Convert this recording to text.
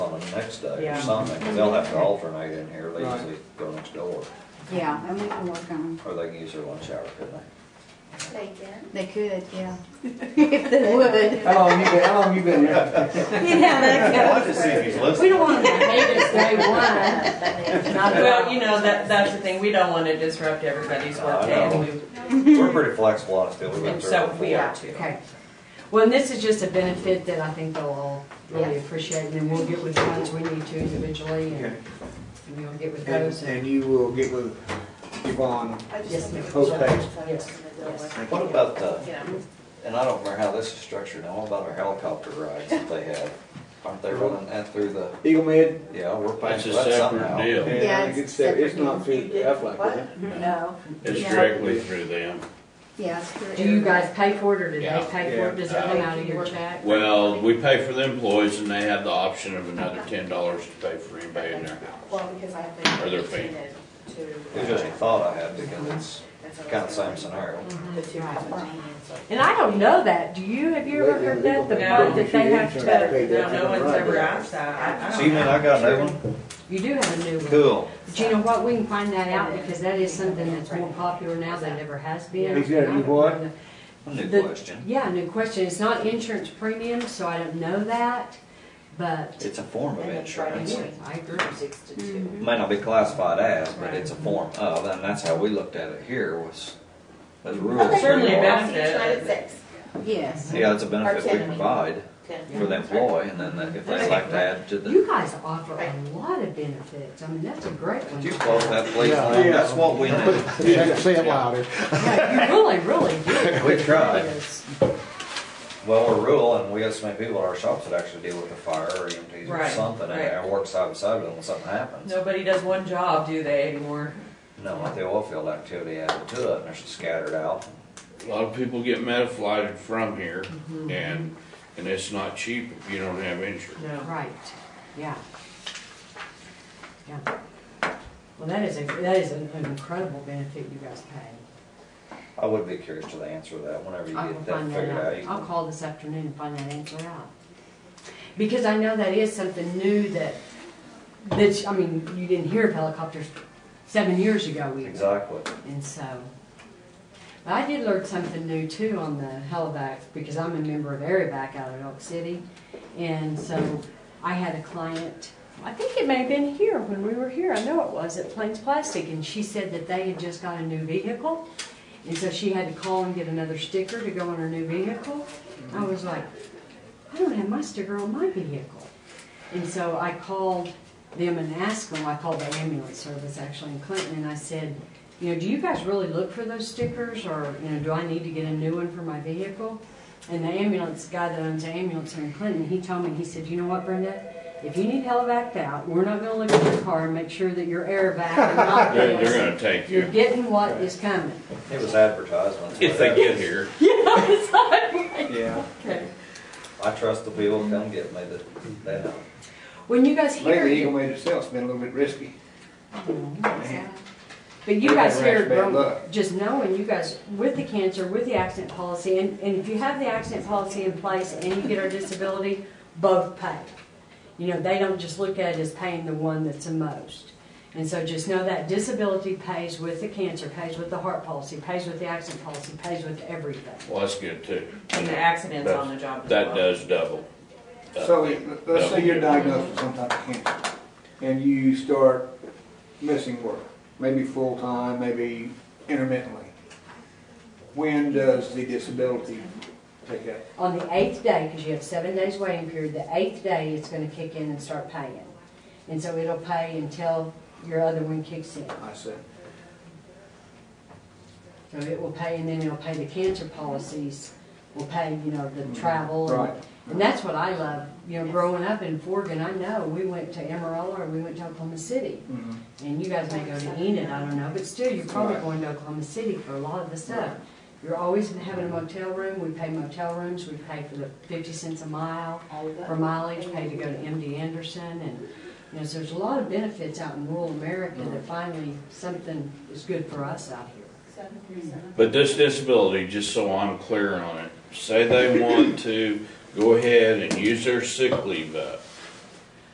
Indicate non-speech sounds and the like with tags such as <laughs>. next day or Yeah. something, 'cause they'll have to alternate in here, they Right. usually go next door, Yeah, and we can work on, or they can use their lunch hour, couldn't they? They can. they could, <laughs> yeah. If they would. How long you been, how long you been there? Yeah, I'd that like to see if he's could. We listening. don't want to, Vegas day one. Well, you know, that, that's the thing, we don't wanna disrupt everybody's No, Oh, I workday, know. and We're pretty flexible on it still, we we, went and through. so we Yeah, are too. okay. Well, and this is just a benefit that I think they'll all really appreciate, and then we'll get with the ones we need to individually, and and we'll get with And, those. and- and you will get with Yvonne. Yes, ma'am. What about the, and I don't remember how this is structured now, what about our helicopter rides that they have? Aren't they running that through the, Eagle Med? yeah, we're paying That's for a that separate somehow. deal. Yeah, I think it's separate. It's separate. not through Aflac, is it? No. It's Yeah. directly through them. yeah. it's for Do you everybody. guys pay for it, or do they Yeah. pay for it, does it come out of your check? Well, we pay for the employees and they have the option of another ten dollars to pay for anybody in their house. Well, because I think. Or they're paying. It uh, was just a thought I had, because it's kind of same scenario. The two Right. have a chance. And I don't know that, do you, have you ever heard that, the part that they have to, No, no one's ever asked that, I, I So don't you mean know. I got a new one? you do have a new one. Cool. But you know what, we can find that out, because that is something that's more popular now than it ever has been. Is that a new what? New The- question. Yeah, new question, it's not insurance premium, so I don't know that, but, It's a form of And then insurance. Friday. yeah, I agree. Six to two. Mhm. May not be classified as, but Right. it's a form of, and that's how we looked at it here was, as rules. Certainly we a are. benefit. Six, nine, six. Yes. Yeah, it's a benefit we Artillery. provide Ten. for the employee, and then if they like to add to the, You guys offer a lot of benefits, I mean, that's a great one. Could you close that please, Yeah. Lynn? That's what we <laughs> need. Say it louder. Yeah, You really, really do. We tried. Yes. Well, we're rural, and we got so many people at our shops that actually deal with the fire or EMTs or Right, something, and right. and work side by side with them when something happens. Nobody does one job, do they anymore? No, like the oil field activity added to it, and they're scattered out. A lot of people get metaflighted from here Mm-hmm. and, and it's not cheap if you don't have insurance. No. Right, yeah. Yeah. Well, that is a, that is an incredible benefit you guys pay. I would be curious to the answer to that, whenever you I will get that find that figured out. you out, I'll can- call this afternoon and find that answer out. Because I know that is something new that, that, I mean, you didn't hear of helicopters seven years ago even. Exactly. And so, but I did learn something new too on the Halivax because I'm a member of Arivac out of Elk City. And so I had a client, I think it may have been here when we were here, I know it was at Plains Plastic. And she said that they had just got a new vehicle. And so she had to call and get another sticker to go on her new vehicle. I was like, I don't have my sticker on my vehicle. And so I called them and asked them, I called the ambulance service actually in Clinton, and I said, you know, do you guys really look for those stickers, or, you know, do I need to get a new one for my vehicle? And the ambulance guy that owns the ambulance here in Clinton, he told me, he said, you know what, Brenda? If you need hell backed out, we're not gonna look at your car and make sure that your air vac and <laughs> not They're, they're this. gonna take You're you getting what is coming. It was advertisements. if they get here. Yeah. Okay. I trust the people come get me that, they know. When you guys hear. Lately, Eagle Med itself's been a little bit risky. But you We've guys had here, rash bad from- luck. just knowing you guys, with the cancer, with the accident policy, and, and if you have the accident policy in place and you get our disability, both pay. You know, they don't just look at it as paying the one that's the most. And so just know that disability pays with the cancer, pays with the heart policy, pays with the accident policy, pays with everything. Well, that's good too. And the accidents on the job as well. That does double. So let's say you're diagnosed with some type of cancer and you start missing work, maybe full-time, maybe intermittently. When does the disability take up? On the eighth day, because you have seven days waiting period, the eighth day it's gonna kick in and start paying. And so it'll pay until your other one kicks in. I said, So it will pay, and then it'll pay the cancer policies, will pay, you know, the travel. and- Right. And that's what I love, you know, growing up in Forgan, I know, we went to Amarillo or we went to Oklahoma City. Mhm. And you guys may go to Enid, I don't know, but still, you're probably Right. going to Oklahoma City for a lot of the stuff. Right. You're always having a motel room, we pay motel rooms, we pay for the fifty cents a mile for mileage, pay to go to MD Anderson, and, you know, so there's a lot of benefits out in rural America that finally something is good for us out here. Seven percent. But this disability, just so I'm clear on it, say they want to go ahead and use their sick leave up.